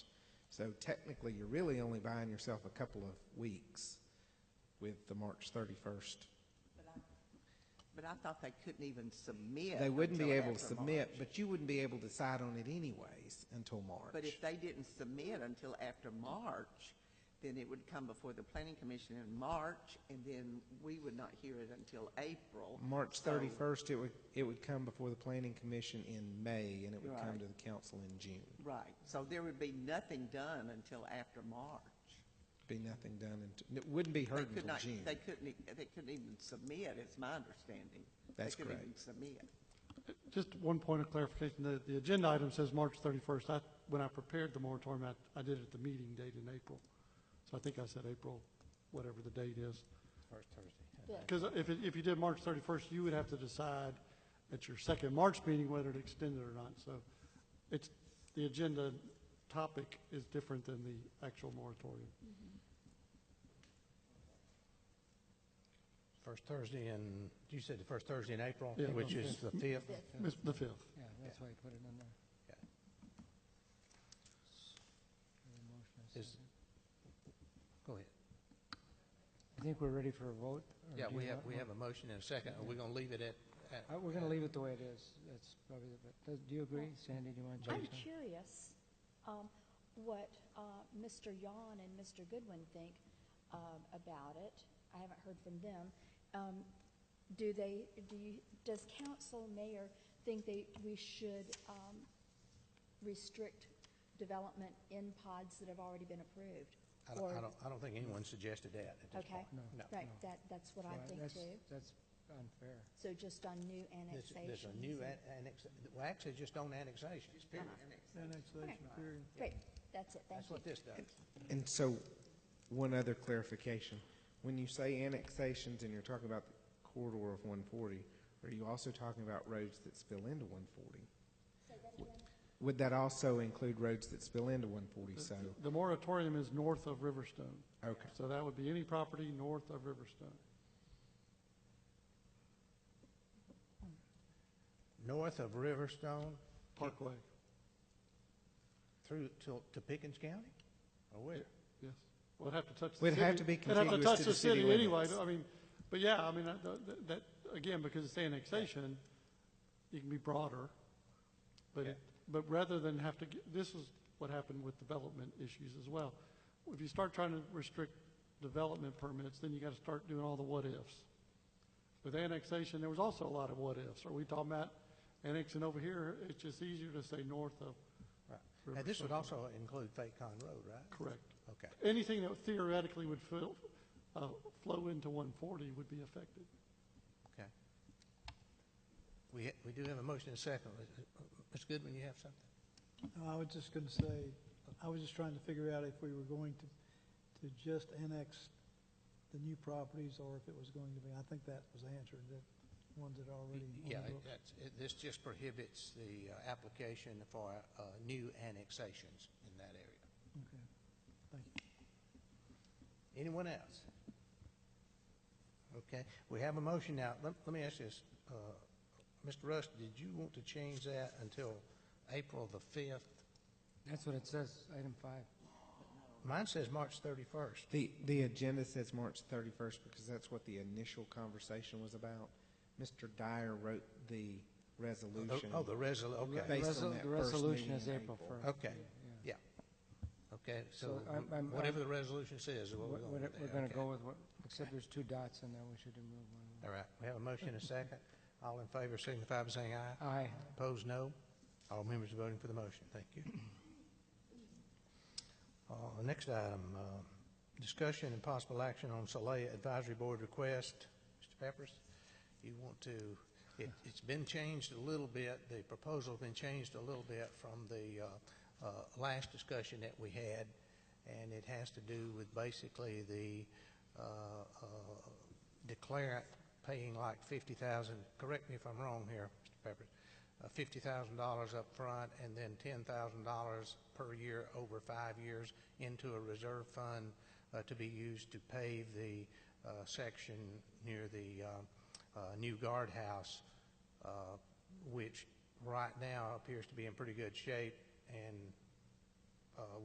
So technically, you're really only buying yourself a couple of weeks with the March 31st. But I thought they couldn't even submit. They wouldn't be until able to after submit, March. but you wouldn't be able to decide on it anyways until But March. if they didn't submit until after March, then it would come before the planning commission in March, and then we would not hear it until April. March So- 31st, it would, it would come before the planning commission in May, and it would come Right. to the council in June. Right, so there would be nothing done until after March. Be nothing done, until it wouldn't be They heard could until not, June. they couldn't, e- they couldn't even submit, it's my understanding. That's They couldn't correct. even submit. Just one point of clarification, the, the agenda item says March 31st. I, when I prepared the moratorium, I, I did it at the meeting date in April. So I think I said April, whatever the date is. Because if, it- if you did March 31st, you would have to decide at your second March meeting whether to extend it or not. So it's, the agenda topic is different than the actual moratorium. Mm-hmm. First Thursday in, you said the first Thursday in April, Yeah. which is the fifth. Miss- The 5th. Yeah, that's why you put it in there. Yeah. Any motion or Is- second? Go ahead. I think we're ready for a vote. or Yeah, do we you have, want we one? have a motion and a second. Are we going to leave it at? at- Uh, We're going to leave it the way it is. That's probably, the bet- does- do you agree, Sandy? Do you want to I'm change that? curious um, what uh, Mr. Yon and Mr. Goodwin think um, about it. I haven't heard from them. Um, Do they, do you, does council mayor think they, we should um, restrict development in pods that have already been approved? I don't, I Or- don't, I don't think anyone suggested that at this Okay, point. No. right, that, that's what I Well, think that's- too. That's unfair. So just on new This, annexations? this a new an- annex, well, actually, just on annexations, period. Annexation Great, that's it, thank That's you. what this does. And so, one other clarification. When you say annexations and you're talking about the corridor of 140, are you also talking about roads that spill into 140? Would that also include roads that spill into 140? So, The moratorium is north of Riverstone. okay. So that would be any property north of Riverstone. North of Riverstone Parkway, through to, to Pickens County? Or where? yes. Well, it'd have to touch the Would city. have to be It'd have to contiguous touch to the the city city anyway, limits. I mean, but yeah, I mean, I- that, that- again, because it's annexation, you can be broader. But, it- but rather than have to, get- this is what happened with development issues as well. If you start trying to restrict development permits, then you gotta start doing all the what-ifs. With annexation, there was also a lot of what-ifs. Are we talking about annexing over here? It's just easier to say north of, Right. Now, this would Riverstone. also include Fayette Con Road, right? correct. Okay. anything that theoretically would fill, uh, flow into 140 would be affected. Okay. We, ha- we do have a motion and a second. Ms. Goodwin, you have something? No, I was just going to say, I was just trying to figure out if we were going to, to just annex the new properties or if it was going to be, I think that was answered, the ones that are already. on the Yeah, it- books. that's, it- this just prohibits the uh, application for uh, new annexations in that area. Okay, thank you. Anyone else? Okay, we have a motion now. Let, let me ask this, uh, Mr. Russ, did you want to change that until April the fifth? That's what it says, item five. Mine says March thirty-first. The, the agenda says March 31st because that's what the initial conversation was about. Mr. Dyer wrote the resolution. Oh, the resol, okay, Based on Resol- that The first resolution meeting is in April April. Oh, 1st. okay, yeah. Okay, so So I'm- I'm- whatever the resolution says is what we're We're going going to do. to Okay. go with what, except there's two dots in there, we should remove one. of them. All right, we have a motion and a second. All in favor signify by saying aye. Aye. Opposed, no. All members voting for the motion, thank you. Uh, Next item, uh, discussion and possible action on Solea Advisory Board request. Mr. Peppers, you want to, it- it's been changed a little bit, the proposal's been changed a little bit from the uh, uh, last discussion that we had, and it has to do with basically the uh, uh, declarant paying like 50,000, correct me if I'm wrong here, Mr. Peppers, uh, $50,000 up front and then $10,000 per year over five years into a reserve fund uh, to be used to pave the uh, section near the uh, uh, new guardhouse, uh, which right now appears to be in pretty good shape and uh,